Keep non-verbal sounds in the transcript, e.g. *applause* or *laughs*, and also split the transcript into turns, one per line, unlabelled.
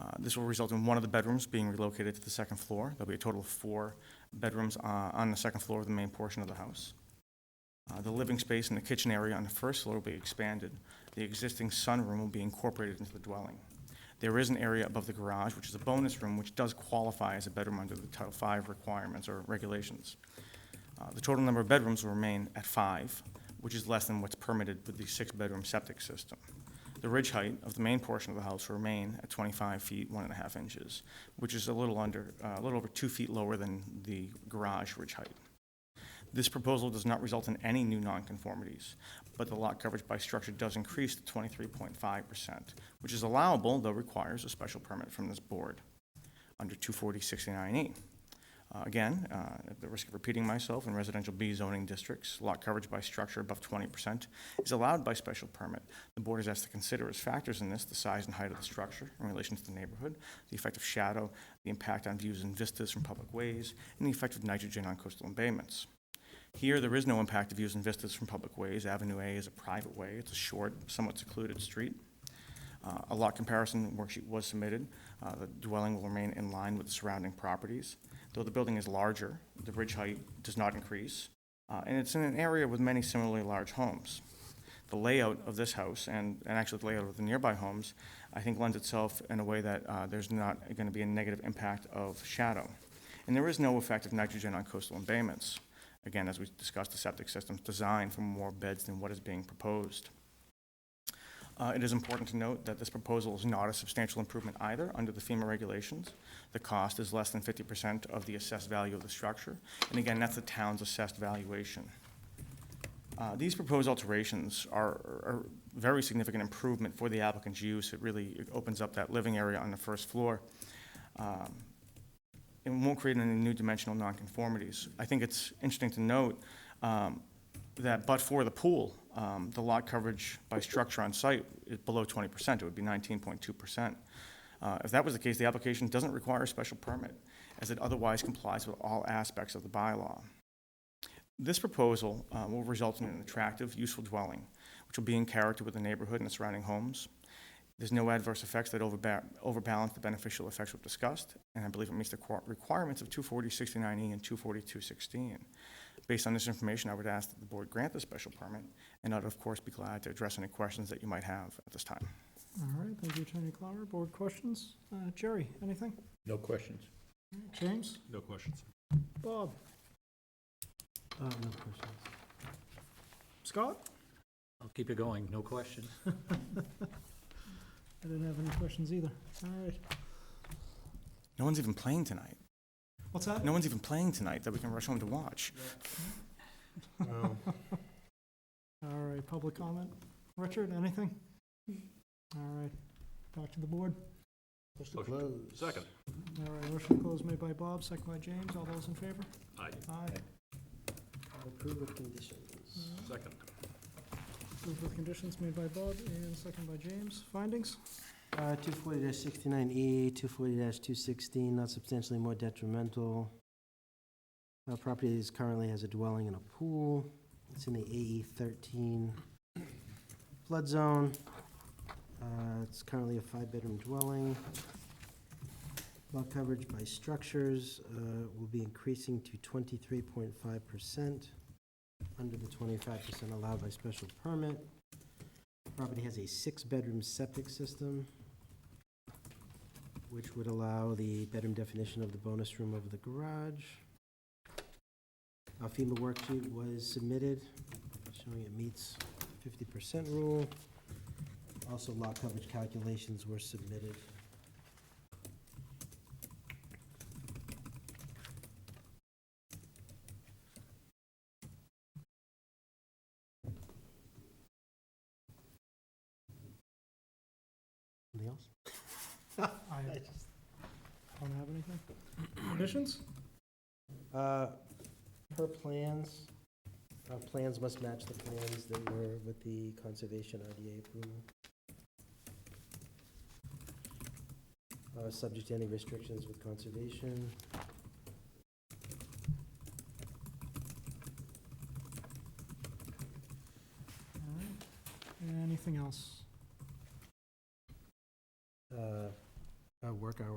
Uh, This will result in one of the bedrooms being relocated to the second floor. There'll be a total of four bedrooms uh, on the second floor of the main portion of the house. Uh, The living space and the kitchen area on the first floor will be expanded. The existing sunroom will be incorporated into the dwelling. There is an area above the garage, which is a bonus room, which does qualify as a bedroom under the Title V requirements or regulations. Uh, The total number of bedrooms will remain at five, which is less than what's permitted with the six-bedroom septic system. The ridge height of the main portion of the house will remain at 25 feet, one and a half inches, which is a little under, uh, a little over two feet lower than the garage ridge height. This proposal does not result in any new nonconformities, but the lot coverage by structure does increase to 23.5%, which is allowable, though requires a special permit from this board under 240-69E. Uh, Again, uh, at the risk of repeating myself, in residential B zoning districts, lot coverage by structure above 20% is allowed by special permit. The board is asked to consider as factors in this the size and height of the structure in relation to the neighborhood, the effect of shadow, the impact on views and vistas from public ways, and the effect of nitrogen on coastal embayments. Here, there is no impact of views and vistas from public ways. Avenue A is a private way. It's a short, somewhat secluded street. Uh, A lot comparison worksheet was submitted. Uh, The dwelling will remain in line with the surrounding properties. Though the building is larger, the ridge height does not increase, uh, and it's in an area with many similarly large homes. The layout of this house, and and actually the layout of the nearby homes, I think lends itself in a way that uh, there's not going to be a negative impact of shadow. And there is no effect of nitrogen on coastal embayments. Again, as we discussed, the septic system's designed for more beds than what is being proposed. Uh, It is important to note that this proposal is not a substantial improvement either under the FEMA regulations. The cost is less than 50% of the assessed value of the structure, and again, that's the town's assessed valuation. Uh, These proposed alterations are are a very significant improvement for the applicant's use. It really opens up that living area on the first floor. Um, It won't create any new dimensional nonconformities. I think it's interesting to note um, that but for the pool, um, the lot coverage by structure on site is below 20%. It would be 19.2%. Uh, If that was the case, the application doesn't require a special permit, as it otherwise complies with all aspects of the bylaw. This proposal uh, will result in an attractive, useful dwelling, which will be in character with the neighborhood and the surrounding homes. There's no adverse effects that overba- overbalance the beneficial effects we've discussed, and I believe it meets the qua- requirements of 240-69E E and 242-16. Based on this information, I would ask that the board grant the special permit, and I'd, of course, be glad to address any questions that you might have at this time.
All right, thank you, Attorney Clower. Board questions? Uh, Jerry, anything?
No questions.
James?
No questions.
Bob?
Uh, no questions.
Scott?
I'll keep it going, no questions.
I didn't have any questions either. All right.
No one's even playing tonight.
What's that? *laughs*
No one's even playing tonight that we can rush home to watch.
All right, public comment. Richard, anything? All right, back to the board.
Second.
All right, motion to close made by Bob, second by James. All those in favor?
Aye,
Aye.
Approve with conditions.
second.
Approved with conditions made by Bob and second by James. Findings?
Uh, two forty sixty-nine E, two forty two sixteen, not substantially more detrimental. Uh, property is currently has a dwelling and a pool. It's in the AE thirteen flood zone. Uh, it's currently a five-bedroom dwelling. Lot coverage by structures, uh, will be increasing to twenty-three point five percent, under the twenty-five percent allowed by special permit. Property has a six-bedroom septic system, which would allow the bedroom definition of the bonus room over the garage. A FEMA worksheet was submitted, showing it meets fifty percent rule. Also, lot coverage calculations were submitted. Anything else?
*laughs* I don't have anything. Conditions?
Uh, Per plans, uh, plans must match the plans that were with the conservation RDA approval. Uh, Subject to any restrictions with conservation.
All right. Anything else?
Uh, uh, work hours